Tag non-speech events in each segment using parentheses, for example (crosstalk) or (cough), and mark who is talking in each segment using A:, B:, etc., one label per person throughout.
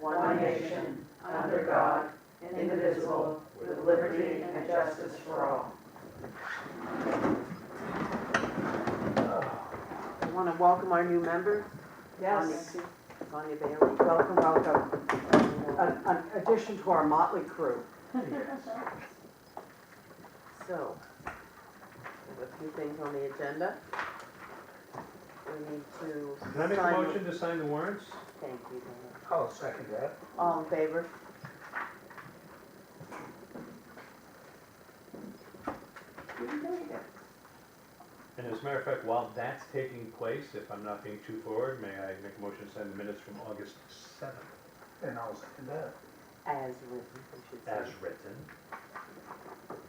A: one nation, under God, indivisible, with liberty and justice for all.
B: I want to welcome our new member,
A: Yes,
B: Sonia Bailey.
A: welcome, welcome. An an addition to our motley crew.
B: So, we have a few things on the agenda. We need to.
C: Can I make a
B: sign the-
C: motion to sign the warrants?
B: Thank you, Dana.
D: I'll second that.
B: All in favor? You can do it.
C: And as a matter of fact, while that's taking place, if I'm not being too forward, may I make a motion to sign the minutes from August seventh
D: And I'll second that.
B: As written, I should
C: as
B: say.
C: written?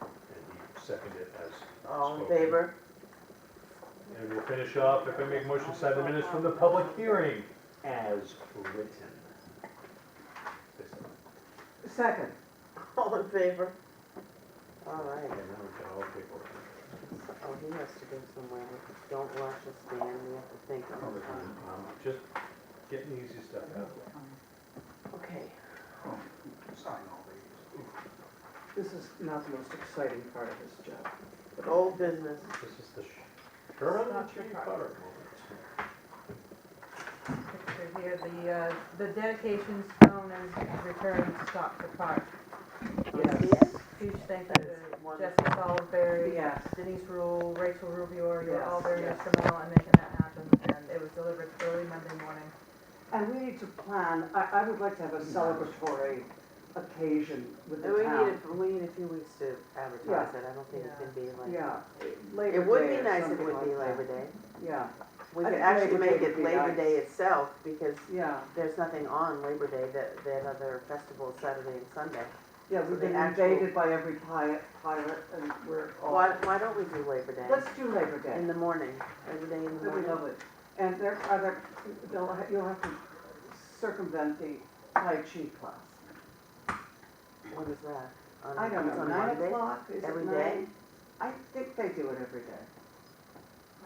C: And you second it as spoken.
B: All in favor? (laughs)
C: And we'll finish off, if I make a motion to sign the minutes from the public hearing as written.
A: Second,
B: All in favor? All
C: And
B: right.
C: then we can all take over.
B: Oh, he has to go somewhere. Don't rush us, Dan. We have to think all the time.
C: Um, Just getting the easy stuff out.
B: Okay.
D: Oh, Sign all these.
A: this is not the most exciting part of this job.
B: Old business.
C: This is the Sh- Sherman
E: Not your
C: Chief
E: part.
C: Butter moment.
E: picture here, the, uh, the dedication stone is returned to Stockford Park.
A: Yes.
E: Huge thank
B: That
E: you
B: is
E: to
B: wonderful.
E: Jessica Salisbury,
A: Yes,
E: Denise Rule, Rachel Rubio, you were all
A: Yes,
E: very
A: yes.
E: instrumental in making that happen, and it was delivered early Monday morning.
A: and we need to plan, I, I would like to have a celebratory occasion with
B: And we
A: the
B: need,
A: town.
B: a- we need a few weeks to advertise it, I don't think it
E: Yeah.
B: can be like.
A: Yeah,
B: It
A: Labor
B: would
A: Day
B: be
A: or
B: nice if it
A: something
B: would be
A: like that.
B: Labor Day.
A: Yeah,
B: We
A: I
B: could
A: think
B: actually
A: Labor Day
B: make
A: would
B: it
A: be
B: Labor
A: nice.
B: Day itself, because
A: yeah,
B: there's nothing on Labor Day, that, that other festival is Saturday and Sunday.
A: yeah,
B: So
A: we've
B: the
A: been
B: actual-
A: invaded by every pirate, pirate, and we're all,
B: Why, why don't we do Labor
A: Oh. let's
B: Day
A: do Labor
B: in
A: Day.
B: the morning, Labor Day in the
A: That'd be
B: morning?
A: lovely. And there are, there, they'll ha- you'll have to circumvent the Tai Chi class.
B: When is that? On-
A: I don't
B: it's
A: know,
B: on
A: nine
B: Monday?
A: o'clock, is it
B: Every
A: nine?
B: day?
A: I think they do it every day.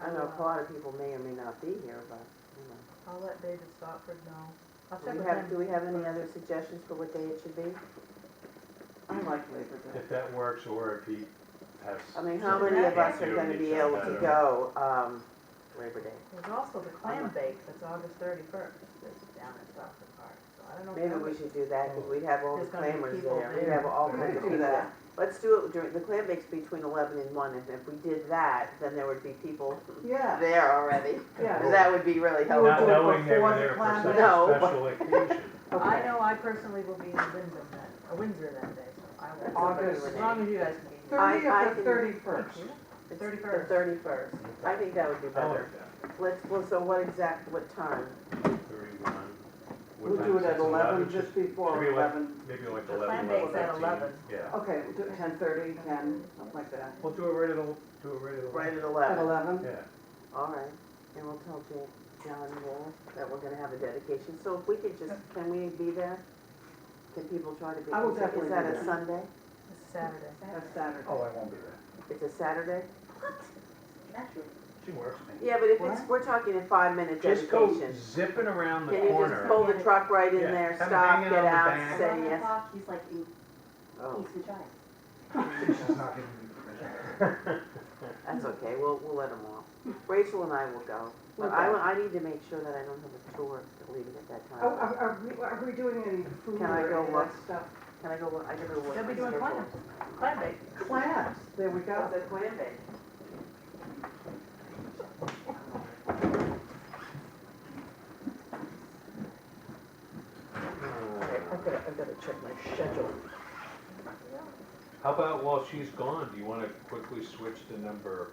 B: I know a lot of people may or may not be here, but, you know.
E: I'll let David Stockford know. I'll
B: Do
E: check
B: we
E: with
B: have, do we
E: him.
B: have any other suggestions for what day it should be?
A: I like Labor Day.
C: If that works, or if he has.
B: I mean, how
C: something
B: many of
C: he
B: us
C: can
B: are
C: do,
B: gonna
C: he
B: be
C: can
B: able
C: let
B: to
C: him-
B: go, um, Labor Day?
E: There's also the clam bake that's August thirty-first, that's down at Stockford Park, so I don't know. if
B: Maybe
E: that
B: we
E: would-
B: should do that, because we'd have all the
E: There's gonna be
B: clammers
E: people
B: there, we'd
E: there.
B: have all
D: We
B: kinds of
A: could do
B: people.
A: that.
B: Let's do it during, the clam bake's between eleven and one, and if we did that, then there would be people
A: Yeah,
B: there already.
A: yeah.
B: And that would be really
A: You would
C: Not
A: do
B: helpful.
A: it
C: knowing they
A: before
C: were
A: the
C: there for
A: clam
C: such
B: bake.
C: a special occasion.
E: I
A: Okay.
E: know I personally will be in Windsor that, uh, Windsor that day, so I will.
A: August-
E: As long as you guys can be here.
B: I-
A: Thirty
B: I
A: or
B: can-
A: thirty-first?
B: It's The
E: 31st.
B: thirty-first, I think that would be
C: I like
B: (laughs) better.
C: that.
B: Let's, well, so what exact, what time?
C: Thirty-one. What
A: We'll
C: time
A: do
C: is
A: it at
C: It's
A: eleven,
C: should-
A: just before
C: Maybe like,
A: eleven.
C: maybe like
E: The
C: eleven,
E: clam
C: eleven
E: bake's at
C: fifteen.
E: 11.
C: Yeah.
A: Okay, we'll do it ten thirty, ten, something like that.
C: We'll do it right at, el- do it right at
B: Right
C: eleven.
B: at
A: At
B: eleven?
A: eleven?
C: Yeah.
B: All right, and we'll tell Ja- John Wall that we're gonna have a dedication, so if we could just, can we be there? Can people try to be?
A: I will
B: is that-
A: definitely be
B: Is that
A: there.
B: a Sunday?
E: It's Saturday.
A: That's Saturday.
D: Oh, I won't be there.
B: It's a Saturday?
D: She works me.
B: Yeah, but if it's, we're talking a five-minute
C: Just go
B: dedication.
C: zipping around the
B: Can you just
C: corner. (laughs)
B: pull the truck right in
C: Yeah,
B: there,
C: come
B: stop,
C: hang
B: get
C: out the
B: out,
C: back.
B: say yes?
F: he's like, eat,
B: Oh,
F: vagina.
D: She's not giving me permission.
B: that's okay, we'll, we'll let them off. Rachel and I will go, but I, I need to make sure that I don't have a tour leaving at that
A: Oh,
B: time.
A: are, are we, are we doing any food
B: Can I
A: or
B: go
A: any of
B: look?
A: that stuff?
B: Can I go, look? I gotta go. look
E: They'll be
B: at
E: doing
B: my schedule.
E: clam, clam bake.
A: Clams, there we go.
B: That's a clam bake.
A: I've gotta, I've gotta check my schedule.
C: How about while she's gone, do you wanna quickly switch to number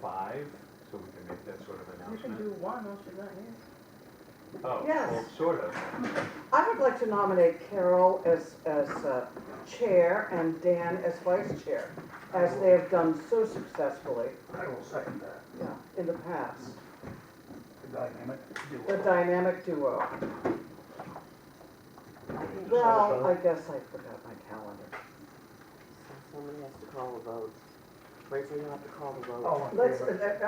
C: five? So we can make that sort of
E: You can
C: announcement?
E: do one once you're not here.
C: Oh,
A: Yes.
C: well, sort of.
A: I would like to nominate Carol as, as uh, chair and Dan as vice chair, as they have done so successfully
D: I will second that.
A: yeah, in the past.
D: The dynamic
A: The
D: duo.
A: dynamic duo.
D: Just
A: Well,
D: also-
A: I guess I forgot my calendar.
B: So Somebody has to call the vote. Rachel, you have to call the vote.
D: All in
A: Let's,
D: favor?
A: uh,